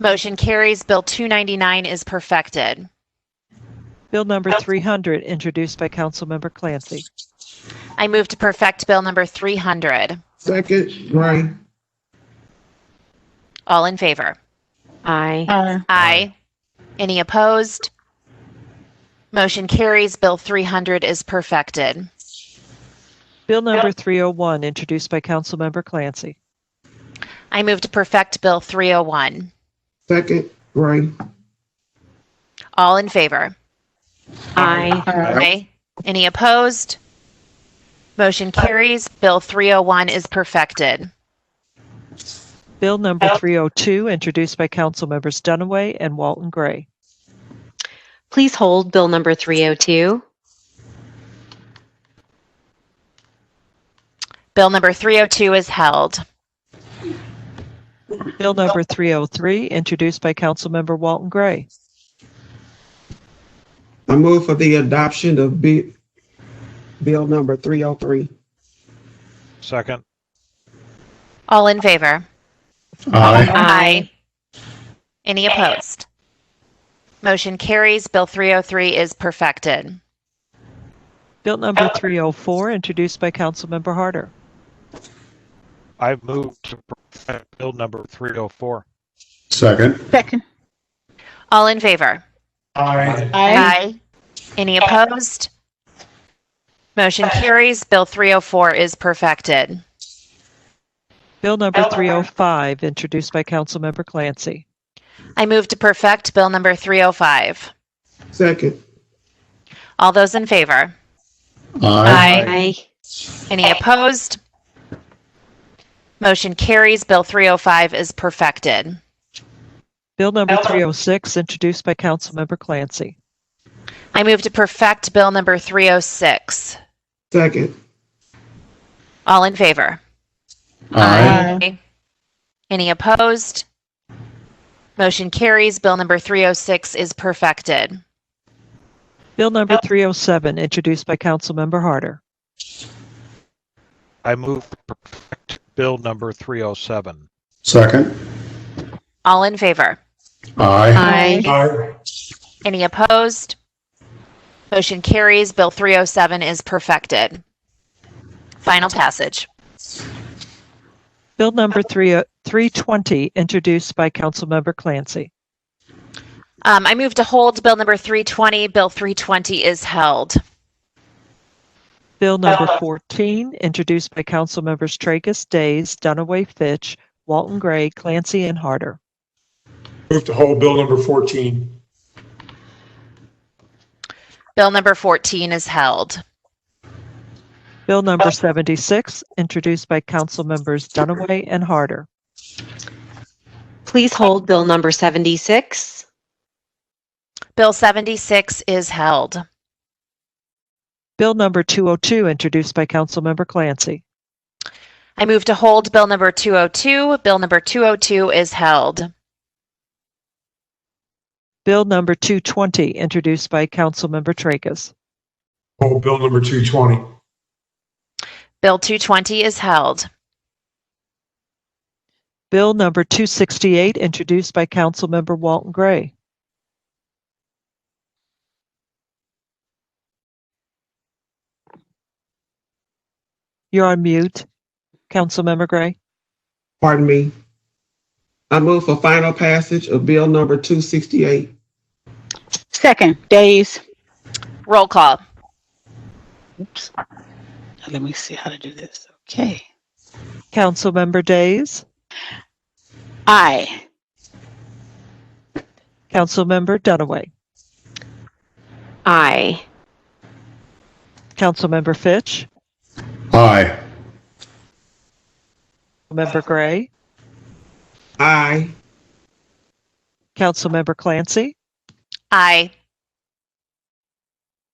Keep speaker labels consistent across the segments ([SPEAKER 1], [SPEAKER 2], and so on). [SPEAKER 1] Motion carries. Bill 299 is perfected.
[SPEAKER 2] Bill number 300, introduced by Councilmember Clancy.
[SPEAKER 1] I move to perfect Bill number 300.
[SPEAKER 3] Second, Grant.
[SPEAKER 1] All in favor?
[SPEAKER 4] Aye.
[SPEAKER 5] Aye.
[SPEAKER 1] Aye. Any opposed? Motion carries. Bill 300 is perfected.
[SPEAKER 2] Bill number 301, introduced by Councilmember Clancy.
[SPEAKER 1] I move to perfect Bill 301.
[SPEAKER 3] Second, Grant.
[SPEAKER 1] All in favor?
[SPEAKER 4] Aye.
[SPEAKER 5] Aye.
[SPEAKER 1] Aye. Any opposed? Motion carries. Bill 301 is perfected.
[SPEAKER 2] Bill number 302, introduced by Councilmembers Dunaway and Walton Gray.
[SPEAKER 4] Please hold Bill number 302.
[SPEAKER 1] Bill number 302 is held.
[SPEAKER 2] Bill number 303, introduced by Councilmember Walton Gray.
[SPEAKER 3] I move for the adoption of bi- bill number three oh three.
[SPEAKER 6] Second.
[SPEAKER 1] All in favor?
[SPEAKER 7] Aye.
[SPEAKER 4] Aye.
[SPEAKER 1] Any opposed? Motion carries. Bill 303 is perfected.
[SPEAKER 2] Bill number 304, introduced by Councilmember Harder.
[SPEAKER 6] I move to perfect bill number 304.
[SPEAKER 7] Second.
[SPEAKER 5] Second.
[SPEAKER 1] All in favor?
[SPEAKER 7] Aye.
[SPEAKER 5] Aye.
[SPEAKER 1] Any opposed? Motion carries. Bill 304 is perfected.
[SPEAKER 2] Bill number 305, introduced by Councilmember Clancy.
[SPEAKER 1] I move to perfect Bill number 305.
[SPEAKER 3] Second,
[SPEAKER 1] All those in favor?
[SPEAKER 4] Aye.
[SPEAKER 1] Any opposed? Motion carries. Bill 305 is perfected.
[SPEAKER 2] Bill number 306, introduced by Councilmember Clancy.
[SPEAKER 1] I move to perfect Bill number 306.
[SPEAKER 3] second,
[SPEAKER 1] All in favor?
[SPEAKER 7] Aye.
[SPEAKER 1] Any opposed? Motion carries. Bill number 306 is perfected.
[SPEAKER 2] Bill number 307, introduced by Councilmember Harder.
[SPEAKER 6] I move to perfect bill number 307.
[SPEAKER 7] Second.
[SPEAKER 1] All in favor?
[SPEAKER 7] Aye.
[SPEAKER 5] Aye.
[SPEAKER 7] Aye.
[SPEAKER 1] Any opposed? Motion carries. Bill 307 is perfected. Final passage.
[SPEAKER 2] Bill number 3 320, introduced by Councilmember Clancy.
[SPEAKER 1] Um, I move to hold Bill number 320. Bill 320 is held.
[SPEAKER 2] Bill number 14, introduced by Councilmembers Tracus, Days, Dunaway, Fitch, Walton Gray, Clancy, and Harder.
[SPEAKER 8] Move to hold bill number 14.
[SPEAKER 1] Bill number 14 is held.
[SPEAKER 2] Bill number 76, introduced by Councilmembers Dunaway and Harder.
[SPEAKER 4] Please hold Bill number 76.
[SPEAKER 1] Bill 76 is held.
[SPEAKER 2] Bill number 202, introduced by Councilmember Clancy.
[SPEAKER 1] I move to hold Bill number 202. Bill number 202 is held.
[SPEAKER 2] Bill number 220, introduced by Councilmember Tracus.
[SPEAKER 8] Hold bill number 220.
[SPEAKER 1] Bill 220 is held.
[SPEAKER 2] Bill number 268, introduced by Councilmember Walton Gray. You're on mute, Councilmember Gray.
[SPEAKER 3] pardon me. I move for final passage of bill number two sixty-eight.
[SPEAKER 5] Second. Days.
[SPEAKER 1] Roll call.
[SPEAKER 5] Oops. Let me see how to do this. Okay.
[SPEAKER 2] Councilmember Days,
[SPEAKER 5] Aye.
[SPEAKER 2] Councilmember Dunaway,
[SPEAKER 4] Aye.
[SPEAKER 2] Councilmember Fitch,
[SPEAKER 7] Aye.
[SPEAKER 2] Member Gray,
[SPEAKER 3] Aye.
[SPEAKER 2] Councilmember Clancy,
[SPEAKER 1] Aye.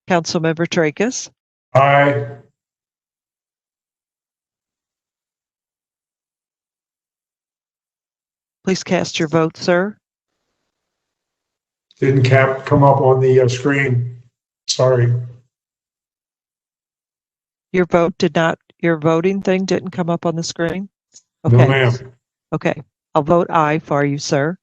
[SPEAKER 2] Councilmember Tracus,
[SPEAKER 8] Aye.
[SPEAKER 2] please cast your vote, sir.
[SPEAKER 8] Didn't cap, come up on the uh, screen. Sorry.
[SPEAKER 2] Your vote did not, your voting thing didn't come up on the screen?
[SPEAKER 8] No,
[SPEAKER 2] Okay,
[SPEAKER 8] ma'am.
[SPEAKER 2] okay. I'll vote aye for you, sir.